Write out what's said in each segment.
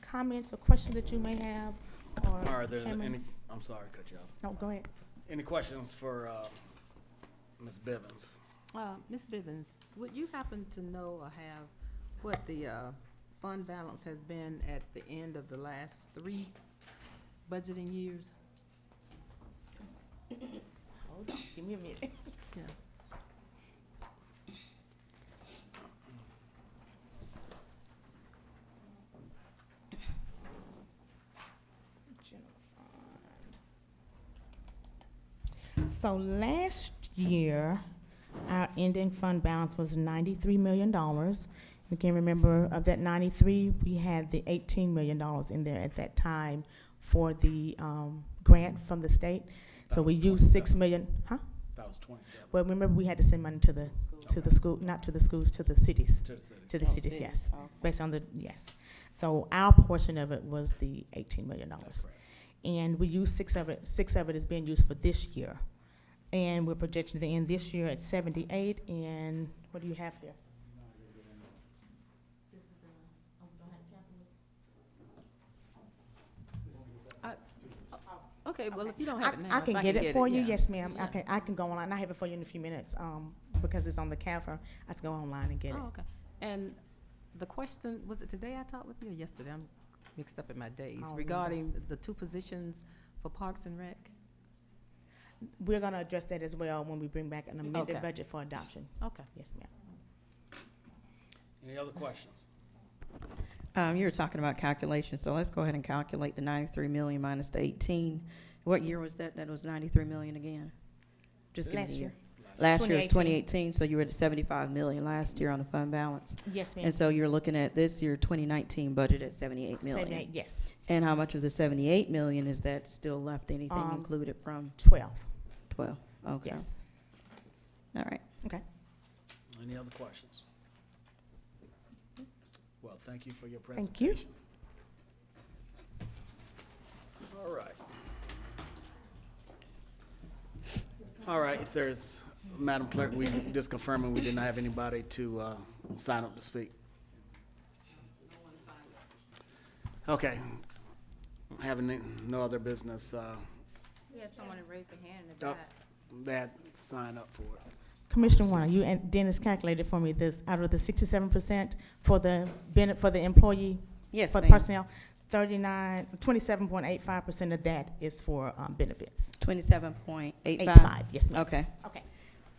comments or questions that you may have, or? All right, there's Chairman? any, I'm sorry, to cut you off. No, go ahead. Any questions for uh, Ms. Bivens? Uh, Ms. Bivens, would you happen to know or have what the, uh, fund balance has been at the end of the last three budgeting years? Hold on, give me a minute. Yeah, General fund. So last year, our ending fund balance was ninety-three million dollars. You can remember of that ninety-three, we had the eighteen million dollars in there at that time for the, um, grant from the state. So we used six million, huh? That was twenty-seven Well, remember, we had to send money to the, to the school, not to the schools, to the cities, to the city. to the cities, yes. Based on the, yes. So our portion of it was the eighteen million That's dollars correct. and we use six of it, six of it is being used for this year. And we're projecting the end this year at seventy-eight, and what do you have there? okay, well, if you don't I, have it now. I if can get it for you, yeah. yes, ma'am, I Yeah. can, I can go online, I have it for you in a few minutes, um, because it's on the cover, I can go online and get it. Oh, okay. And the question, was it today I talked with you or yesterday? I'm mixed up in my days. don't remember. Regarding the two positions for Parks and Rec? We're gonna address that as well when we bring back an amended Okay. budget for adoption, Okay. yes, ma'am. Any other questions? Um, you were talking about calculations, so let's go ahead and calculate the ninety-three million minus the eighteen. What year was that? That was ninety-three million again? Just give me Last the year. year. Last year 2018. was twenty-eighteen, so you were at seventy-five million last year on the fund balance. Yes, ma'am. And so you're looking at this year, twenty-nineteen budget at seventy-eight Seventy-eight, million. yes, And how much of the seventy-eight million is that still left, anything Um, included from twelve, twelve? Okay, yes. all right. Any other questions? Well, thank you for your Thank you. presentation. All right. All right, if there's, Madam Clerk, we just confirming we didn't have anybody to uh, sign up to speak. Okay. Having no other business, uh, We had someone that raised their hand in the Oh. back. that sign up for it. Commissioner Warner, you and Dennis calculated for me this, out of the sixty-seven percent for the benefit, for the employee Yes, For the ma'am. personnel, 39, 27.85% of that is for um, benefits. Twenty-seven point eight five? 85, yes, ma'am. Okay, Okay.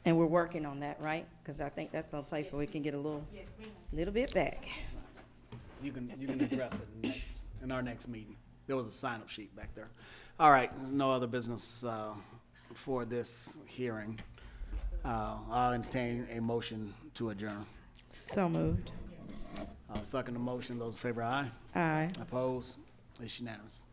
and we're working on that, right? Because I think that's a place where we can get a little, Yes, ma'am. little bit back. You can, you can address it in next, in our next meeting. There was a sign-up sheet back there. All right, there's no other business, uh, for this hearing. Uh, I'll entertain a motion to adjourn. So moved. I'll second the motion. Those in favor, aye. Aye. Opposed? It's unanimous.